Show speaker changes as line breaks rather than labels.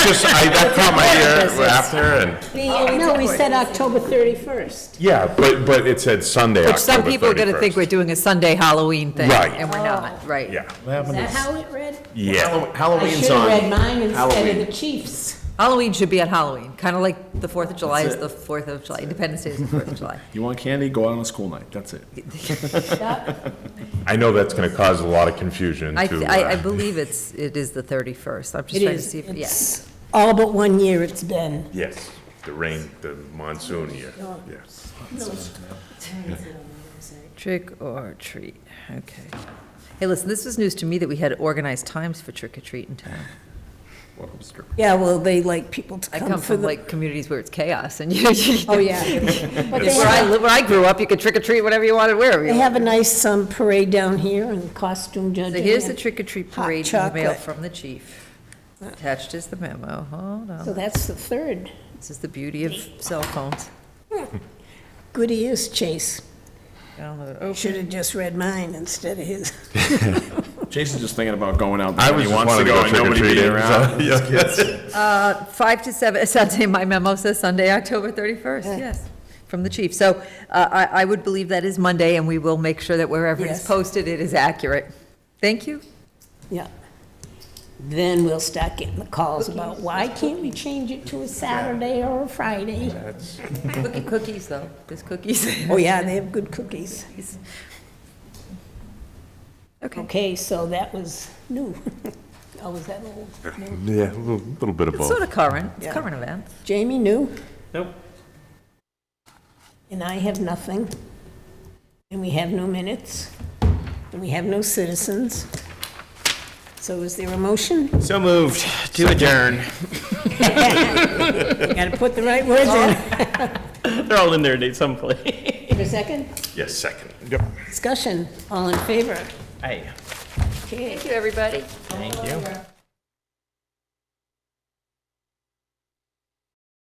just, I, that caught my ear after and,
Oh, No, we said October 31st.
yeah, but, but it said Sunday,
Which some
October
people are gonna think we're
31st.
doing a Sunday Halloween thing,
Right.
and we're
Oh.
not, right?
Yeah,
Is that how it read?
yeah.
I
Halloween's
should have read
on.
mine instead of
Halloween.
the Chiefs.
Halloween should be at Halloween, kinda like the Fourth of July
That's
is
it.
the Fourth of July, Independence Day is the Fourth of July.
You want candy? Go out on a school night. That's it.
I know that's gonna cause a lot of confusion
I,
to,
I, I
uh,
believe it's, it is the thirty-first, I'm just
It
trying to
is.
see if, yes.
It's all but one year it's been.
yes, the rain, the monsoon year, yes.
Trick or treat, okay. Hey, listen, this was news to me that we had organized times for trick or treat in town.
Yeah, well, they like people to
I
come
come
for
from
the.
like communities where it's chaos and you, you-
Oh, yeah. But they
where I,
have-
li- where I grew up, you could trick or treat whatever you wanted, wherever you
They
wanted.
have a nice um, parade down here and costume judging.
So here's the
and-
trick or treat
Hot
parade email
chocolate. Uh.
from the chief. Attached is the memo, hold
So
on,
that's the third.
this is the beauty of cell phones.
Good ears, Chase.
Download, oh,
Should have just read mine instead of his.
Jason's just thinking about going out.
I
there.
was
He
just
wants
wanted to go
and nobody being around.
trick or treating, so, yeah.
Five to seven, Sunday, my memo says Sunday, October 31st, yes, from the chief. So uh, I I would believe that is Monday, and we will make sure that wherever it's
Yes.
posted, it is accurate. Thank you.
Yeah. Then we'll start getting the calls about, why can't we change it to a Saturday or a Friday?
Cookie- Cookies, though, there's cookies.
Oh, yeah, they have good cookies.
Okay,
Okay, so that was new. Oh, was that old?
Yeah, a little, little bit of
it's
both.
sort of current, it's
Yeah.
current events.
Jamie, new?
Nope.
And I have nothing. And we have no minutes. And we have no citizens. So is there a motion?
So moved to adjourn.
Got to put the right words in.
They're all in there, Nate, someplace.
Is there a second?
Yes, second, yep.
Discussion, all in favor?
Hey.
Okay.
you, everybody.
Thank you.